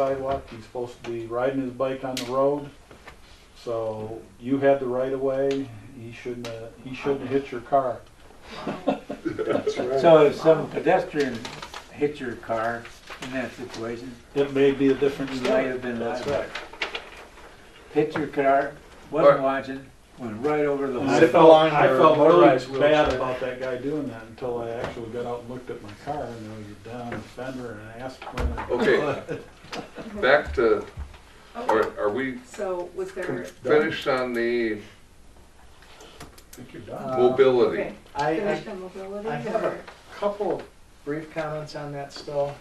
sidewalk, he's supposed to be riding his bike on the road. So you had the right of way, he shouldn't, uh, he shouldn't hit your car. That's right. So if some pedestrian hit your car in that situation, It may be a different It story. might have been That's liable. right. hit your car, Or- wasn't watching, went right over the And line. I Zip felt, line I or felt motorized really bad wheelchair. about that guy doing that until I actually got out and looked at my car and I was down a fender and I asked when I Okay, back to, Okay, are, are we so was there, finished on the think you're done. Uh, mobility? okay, I, I finished on mobility I have a or? couple of brief comments on that still.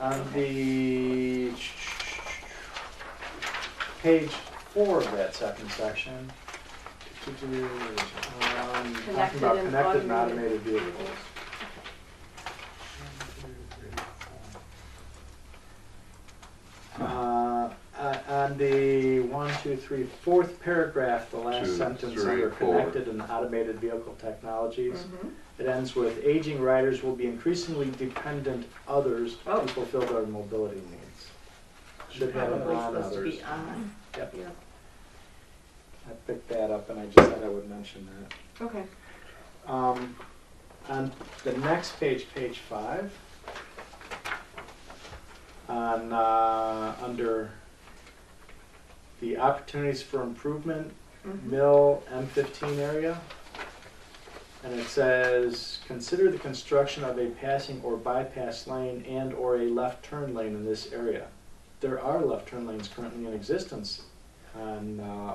On the page four of that second section. um, Talking Connected about connected and and automated automated vehicles. Uh, on- on the one, two, three, fourth paragraph, the Two, last sentence three, under four. connected and automated vehicle technologies. Mhm. It ends with aging riders will be increasingly dependent others Oh. to fulfill their mobility needs. Should have it Probably on supposed to others. be on, Yep, yeah, I picked that up and I just thought I would mention that. okay. Um, on the next page, page five, on, uh, under the opportunities for improvement, Mm-hmm. Mhm. mill M15 area. And it says, consider the construction of a passing or bypass lane and or a left turn lane in this area. There are left turn lanes currently in existence on uh,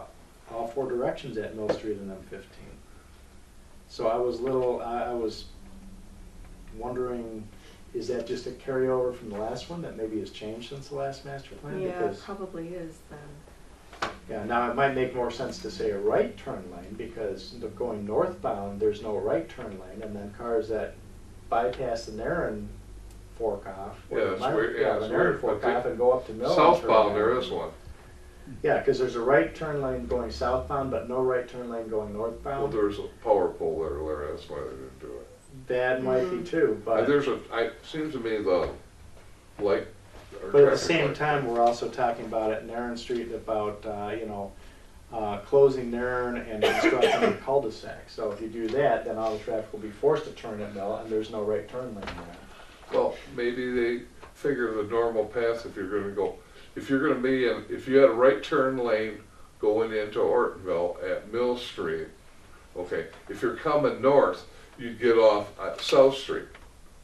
all four directions at Mill Street and M15. So I was little, I I was wondering, is that just a carryover from the last one that maybe has changed since the last master plan? Yeah, Because probably is then. yeah, now it might make more sense to say a right turn lane because the- going northbound, there's no right turn lane, and then cars that bypass the Narren fork off. or Yeah, the it's Myron- weird- yeah, the it's Narren weird, fork but the- off and go up to Mill. and turn Southbound, there around. is one. Yeah, because there's a right turn lane going southbound, but no right turn lane going Well, northbound. there's a power pole there, Larry, that's why they didn't do it. That might be too, And but, there's a, I, seems to me the light. or but at the traffic same light. time, we're also talking about at Narren Street about, uh, you know, uh, closing Narren and constructing a cul-de-sac. So if you do that, then all the traffic will be forced to turn at Mill, and there's no right turn lane there. Well, maybe they figure the normal path if you're gonna go, if you're gonna be in, if you had a right turn lane going into Ortonville at Mill Street, okay, if you're coming north, you'd get off at South Street.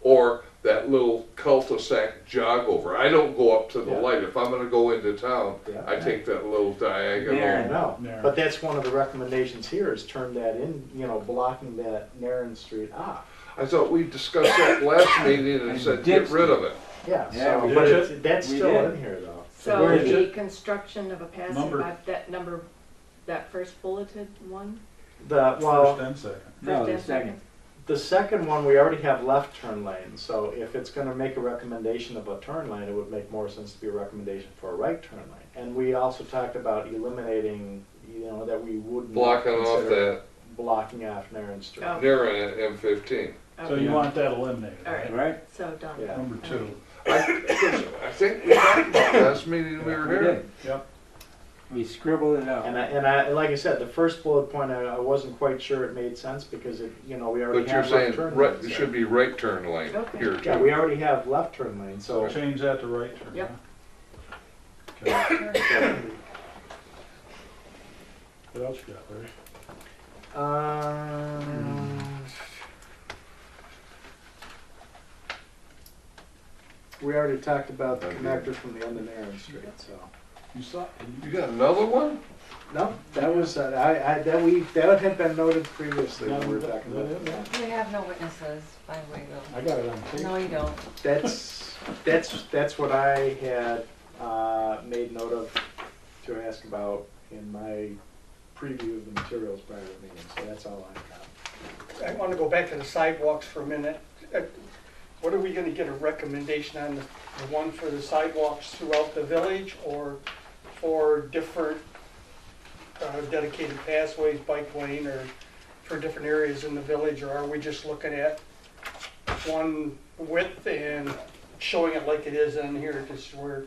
Or that little cul-de-sac jog over. I don't go up to the Yeah. light. If I'm gonna go into town, Yeah. I take that little There. diagonal. I know, Narren. but that's one of the recommendations here is turn that in, you know, blocking that Narren Street off. I thought we discussed that last meeting and And said, get ditch rid of it. Yeah, Yeah, so, we but did. it's- that's We still did. in here though. So Where is the it? construction of a passing Number. by, that number, that first bulleted one? The, First well, and second. No, the First second. the second one, we already have left turn lanes, so if it's gonna make a recommendation of a turn lane, it would make more sense to be a recommendation for a right turn lane. And we also talked about eliminating, you know, that we wouldn't. Blocking off consider that, Blocking off Narren Street. Oh. nearing it, M fifteen. So Okay, you want that eliminated, All right. right? Right? so done. Yeah. Number two, I I think we talked about last meeting we were We here. did. yep. We scribbled it And out. I, and I, and like I said, the first bullet point, I, I wasn't quite sure it made sense because it, you know, we But already you're have saying, left turn right, lanes. it there. should be right turn lane Okay. here Yeah, we too. already have left turn lanes, so. Change that to right turn. Yep. huh? Okay. What else you got, Larry? Um, We already talked about the Okay. connector from the end of Narren Street, so. You saw, You got another one? No, that was, uh, I, I, that we, that had been noted previously when we were talking about that. I We have no witnesses, by the way, though. got it on No, tape. you don't. That's, that's, that's what I had, uh, made note of to ask about in my preview of the materials prior to the meeting, so that's all I've got. I want to go back to the sidewalks for a minute. Uh, What are we going to get a recommendation on the the one for the sidewalks throughout the village or for different uh, dedicated pathways, bike lane, or for different areas in the village? Or are we just looking at one width and showing it like it is in here, just where